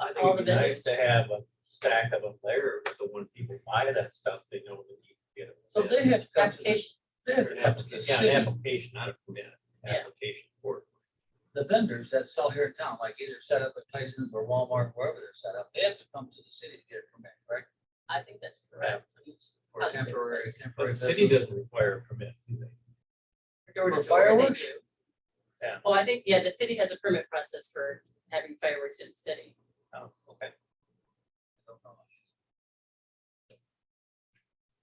I think all the it'd be nice to vendors. have a stack of them there, so when people buy that stuff, they know that you can get it. So they have to come to the, Application. they have An to come to the application, yeah, an city, application, not a permit, Yeah. application for it. the vendors that sell here in town, like either set up at Tyson's or Walmart, wherever they're set up, they have to come to the city to get a permit, correct? I think that's correct. For temporary, Uh, But the temporary city business. doesn't require a permit, do they? Door to For door, they fireworks? do. Yeah. Well, I think, yeah, the city has a permit process for having fireworks in the city. Oh, okay.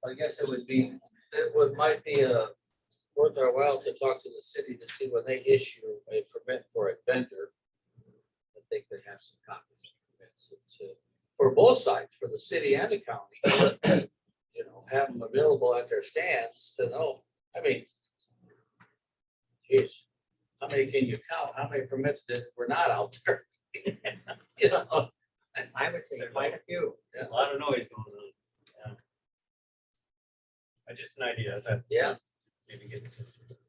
I guess it would be, it would, might be uh worth our while to talk to the city to see when they issue a permit for a vendor. I think they have some copies of permits and to- for both sides, for the city and the county. You know, have them available at their stands to know, I mean. Geez, how many can you count? How many permits that were not out there? You know, I would say quite a few. A lot of noise going on. Yeah. I just an idea, that yeah. maybe get.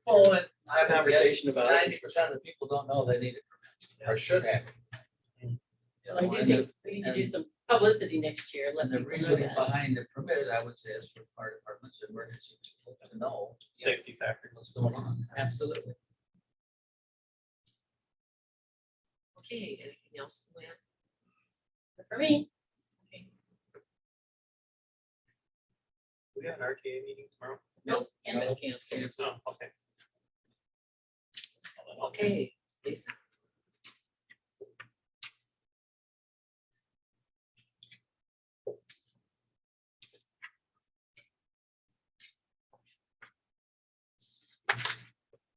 Well, Oh, and I A conversation about it. Ninety percent of the people don't know they need it, or should have. You Oh, know, Well, I do And the- think we need to do some publicity next year, let and the people know reasoning that. behind the permit, I would say, is for fire departments, and emergency people to know Safety factor. what's going on. Absolutely. Okay, anything else, Luann? For me, We have an RTA meeting tomorrow? nope, and No. can't. Oh, okay. Okay, Lisa.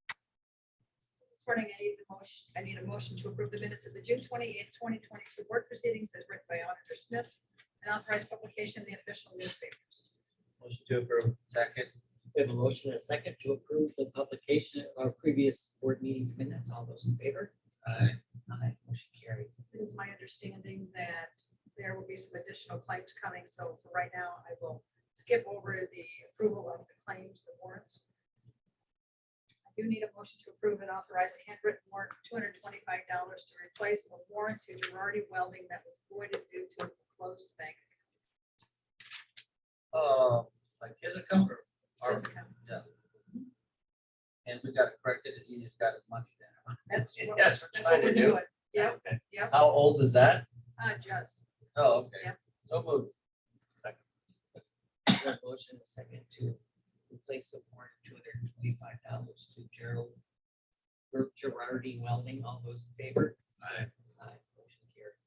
This morning, I need a motion, I need a motion to approve the minutes of the June twenty-eighth, twenty twenty-two board proceedings as written by Auditor Smith and authorized publication in the official newspapers. Motion to approve. Second, We have a motion and a second to approve the publication of our previous board meetings minutes. All those in favor? I, Aye. Motion carried. It is my understanding that there will be some additional claims coming, so for right now, I will skip over the approval of the claims, the warrants. I do need a motion to approve and authorize a handwritten warrant for two hundred twenty-five dollars to replace a warrant to Girardi Welding that was voided due to a closed bank. uh, like, here's a cover, or, account. and we gotta correct it, he just got his money down. That's what That's that's what we're doing. Yep, yep, How old is that? uh, just. Oh, okay, Yeah. so moved. We have a Motion and a second to replace the warrant two hundred and twenty-five dollars to Gerald Ger- Gerardi Welding. All those in favor? Aye. Aye. Motion carried.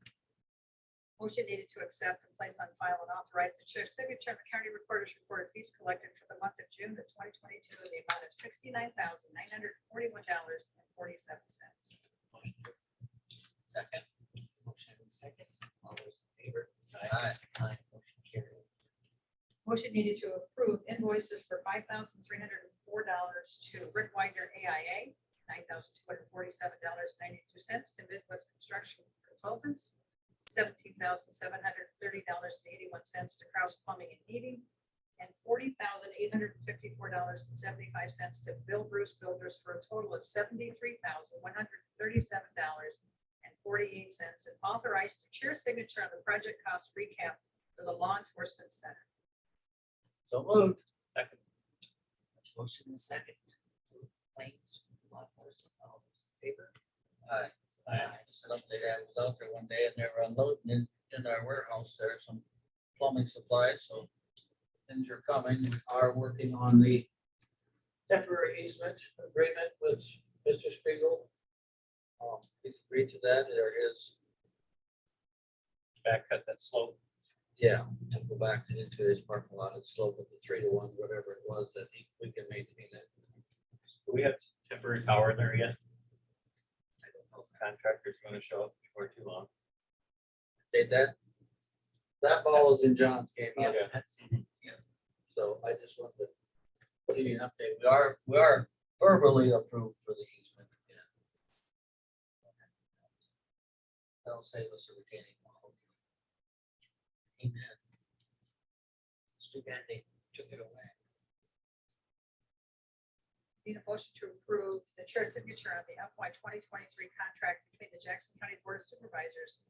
Motion needed to accept and place on file and authorize the chair signature of the county recorder's report of fees collected for the month of June of twenty twenty-two in the amount of sixty-nine thousand nine hundred forty-one dollars and forty-seven cents. Motion to- Second. Motion and a second. All those in favor? Aye. Aye. Motion carried. Motion needed to approve invoices for five thousand three hundred and four dollars to Rick Wagner AIA, nine thousand two hundred forty-seven dollars ninety-two cents to Midwest Construction Consultants, seventeen thousand seven hundred thirty dollars and eighty-one cents to Kraus Plumbing and Heating, and forty thousand eight hundred fifty-four dollars and seventy-five cents to Bill Bruce Builders for a total of seventy-three thousand one hundred thirty-seven dollars and forty-eight cents, and authorized the chair signature on the project cost recap for the law enforcement center. So moved. Second. Motion and a second. Claims, law enforcement, all those in favor? Aye. I set up there, I was out there one day and they were unloading in, in our warehouse there, some plumbing supplies, so. Things are coming, we are working on the temporary easement agreement with Mr. Spiegel. Um, he's agreed to that, there is, Back cut that slope. yeah, to go back into his parking lot and slope of the three to one, whatever it was, that he- we can maintain it. Do we have temporary power in there yet? I don't know if Contractors are gonna show up before too long. Did that, that ball is in John's game, Yeah, Okay. that's- So I just wanted to give you an update. We are, we are verbally approved for the easement. yeah. That'll save us a retaining wall. Amen. It's too bad they took it away. Need a motion to approve the chair signature on the FY twenty twenty-three contract between the Jackson County Board of Supervisors